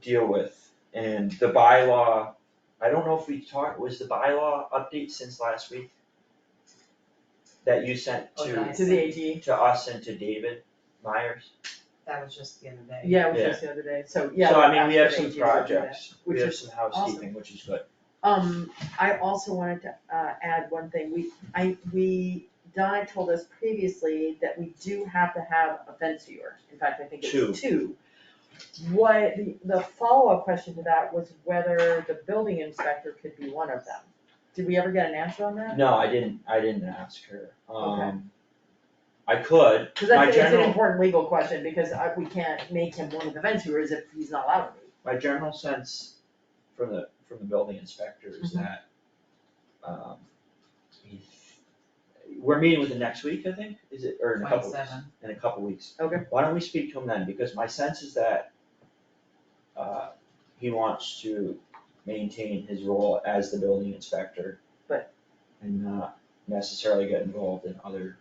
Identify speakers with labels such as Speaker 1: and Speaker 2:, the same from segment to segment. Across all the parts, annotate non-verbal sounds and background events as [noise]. Speaker 1: deal with, and the bylaw, I don't know if we talked, was the bylaw update since last week? That you sent
Speaker 2: Oh,
Speaker 1: to,
Speaker 2: nice.
Speaker 3: to the AG.
Speaker 1: to us and to David Myers?
Speaker 2: That was just the other day.
Speaker 3: Yeah, it was just the other day, so, yeah.
Speaker 1: So I mean, we
Speaker 3: after
Speaker 1: have some
Speaker 3: the AG, we'll do that.
Speaker 1: projects, we
Speaker 3: which
Speaker 1: have
Speaker 3: is
Speaker 1: some housekeeping, which is good.
Speaker 3: Um, I also wanted to, uh, add one thing, we, I, we, Donna told us previously that we do have to have a fence viewer, in fact, I think it's
Speaker 1: Two.
Speaker 3: two. What, the, the follow-up question to that was whether the building inspector could be one of them, did we ever get an answer on that?
Speaker 1: No, I didn't, I didn't ask her,
Speaker 3: Okay.
Speaker 1: um, I could,
Speaker 3: Cause
Speaker 1: my
Speaker 3: that's, it's an
Speaker 1: general,
Speaker 3: important legal question, because I, we can't make him one of the fence viewers if he's not allowed to be.
Speaker 1: my general sense from the, from the building inspector is
Speaker 3: Mm-hmm.
Speaker 1: that, um, he's- we're meeting with him next week, I think, is it, or in a couple weeks,
Speaker 2: 27.
Speaker 1: in a couple weeks.
Speaker 3: Okay.
Speaker 1: Why don't we speak to him then, because my sense is that, uh, he wants to maintain his role as the building inspector.
Speaker 3: But-
Speaker 1: And not necessarily get involved in other,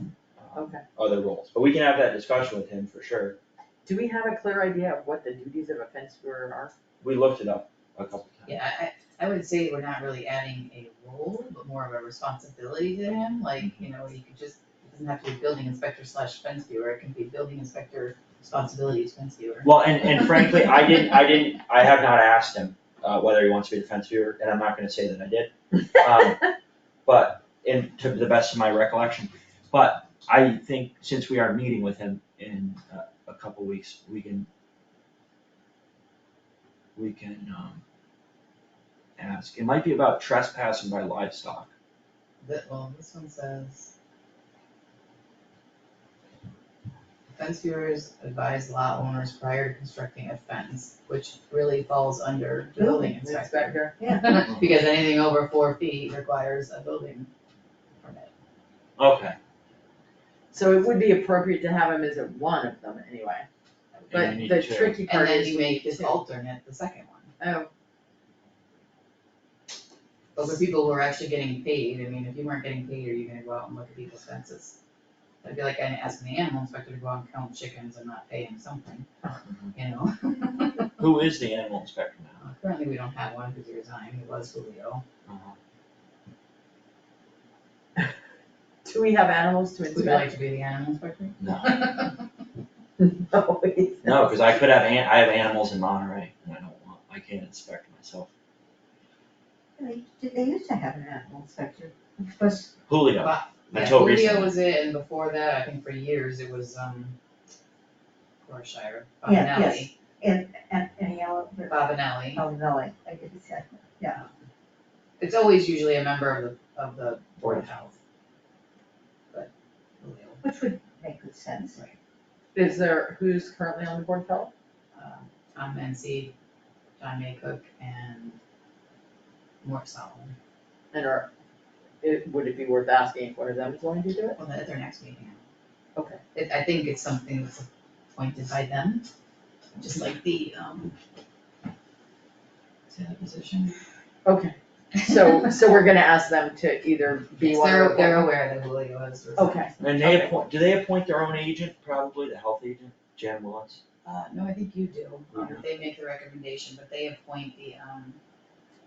Speaker 1: um,
Speaker 3: Okay.
Speaker 1: other roles, but we can have that discussion with him for sure.
Speaker 3: Do we have a clear idea of what the duties of a fence viewer are?
Speaker 1: We looked it up a couple times.
Speaker 2: Yeah, I, I I would say we're not really adding a role, but more of a responsibility to him, like, you know, he could just, it doesn't have to be building inspector slash fence viewer, it can be building inspector responsibilities fence viewer.
Speaker 1: Well, and, and frankly, I didn't, I didn't, I have not asked him, uh, whether he wants to be the fence viewer, and I'm not gonna say that I did. [laughs] Um, But, and to the best of my recollection, but I think since we are meeting with him in uh, a, a couple weeks, we can, we can, um, ask, it might be about trespassing by livestock.
Speaker 2: But, well, this one says. Fence viewers advise lot owners prior to constructing a fence, which really falls under building inspector.
Speaker 3: Yeah.
Speaker 2: [laughs] Because anything over four feet requires a building permit.
Speaker 1: Okay,
Speaker 3: [laughs] So it would be appropriate to have him as a one of them anyway, but
Speaker 1: and you need
Speaker 3: the
Speaker 1: to-
Speaker 3: tricky
Speaker 2: And
Speaker 3: part
Speaker 2: then
Speaker 3: is
Speaker 2: you
Speaker 3: we need
Speaker 2: make
Speaker 3: to.
Speaker 2: this alternate, the second one.
Speaker 3: Oh,
Speaker 2: But for people who are actually getting paid, I mean, if you weren't getting paid, are you gonna go out and look at people's fences? That'd be like asking the animal inspector to go out and count chickens and not pay him something, you know?
Speaker 1: Who is the animal inspector now?
Speaker 2: Uh, Currently, we don't have one because he resigned, it was Julio.
Speaker 3: do we have animals to
Speaker 2: Would you like
Speaker 3: inspect?
Speaker 2: to be the animal inspector?
Speaker 3: No, it's-
Speaker 1: No, cause I could have an, I have animals in Monterey, and I don't want, I can't inspect myself.
Speaker 4: They, did they used to have an animal inspector, which was,
Speaker 1: Julio,
Speaker 2: But, yeah,
Speaker 1: Until
Speaker 2: Julio
Speaker 1: recently.
Speaker 2: was it, and before that, I think for years, it was, um, Corshire,
Speaker 4: Yeah,
Speaker 2: Bobanelli,
Speaker 4: and, and, and yellow, but,
Speaker 2: Bobanelli.
Speaker 4: oh, no, I, I did exactly, yeah.
Speaker 2: It's always usually a member of the, of the board of health. But Julio
Speaker 4: Which would make good sense.
Speaker 3: [laughs] Is there, who's currently on the board of health?
Speaker 2: um, Tom Mency, John Maycook, and Mort Solomon.
Speaker 3: And are, it, would it be worth asking if one of them is willing to do it?
Speaker 2: Well, at their next meeting.
Speaker 3: Okay.
Speaker 2: It, I think it's something that's appointed by them, just like the, um, what's the other position?
Speaker 3: Okay,
Speaker 2: [laughs]
Speaker 3: so, so we're gonna ask them to either be
Speaker 2: Yes,
Speaker 3: one
Speaker 2: They're,
Speaker 3: of
Speaker 2: they're
Speaker 3: them.
Speaker 2: aware that Julio is. resigning.
Speaker 3: Okay,
Speaker 1: and they
Speaker 3: Okay.
Speaker 1: appoint, do they appoint their own agent, probably the health agent, Jan Willis?
Speaker 2: Uh, no, I think you do, Um,
Speaker 1: Yeah.
Speaker 2: they make the recommendation, but they appoint the, um,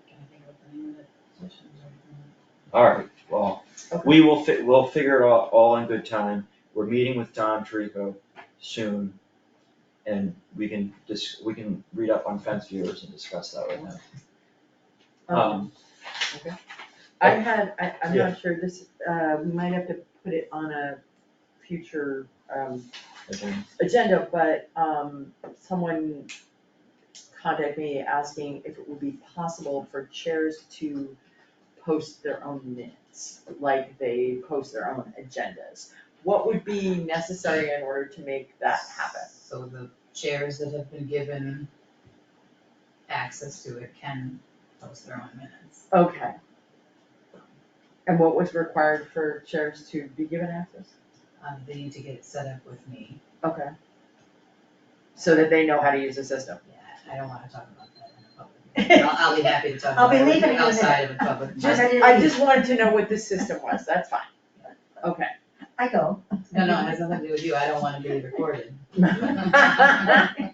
Speaker 2: can I think of what the name of the position is right now?
Speaker 1: Alright, well,
Speaker 3: Okay.
Speaker 1: we will fi- we'll figure it out all in good time, we're meeting with Don Trico soon. And we can dis- we can read up on fence viewers and discuss that right now.
Speaker 3: um,
Speaker 1: Um,
Speaker 3: I had, I, I'm
Speaker 1: Yeah.
Speaker 3: not sure, this, uh, we might have to put it on a future, um,
Speaker 1: again,
Speaker 3: agenda, but um someone contacted me asking if it would be possible for chairs to post their own minutes, like they post their own agendas. What would be necessary in order to make that happen?
Speaker 2: So the chairs that have been given access to it can post their own minutes.
Speaker 3: Okay. And what was required for chairs to be given access?
Speaker 2: Um, they need to get it set up with me.
Speaker 3: Okay. So that they know how to use the [laughs] system.
Speaker 2: Yeah, I don't wanna talk about that in a public meeting. I'll, I'll be happy to talk
Speaker 4: I'll
Speaker 2: about
Speaker 4: be
Speaker 2: it with
Speaker 4: leaving
Speaker 2: you
Speaker 4: in a
Speaker 2: outside of a public meeting.
Speaker 3: Just, I just wanted to know what the system was, that's fine. Okay. [laughs]
Speaker 4: I go. [laughs]
Speaker 2: [laughs] No, no, it has nothing to do with you. I don't wanna be recorded.
Speaker 3: I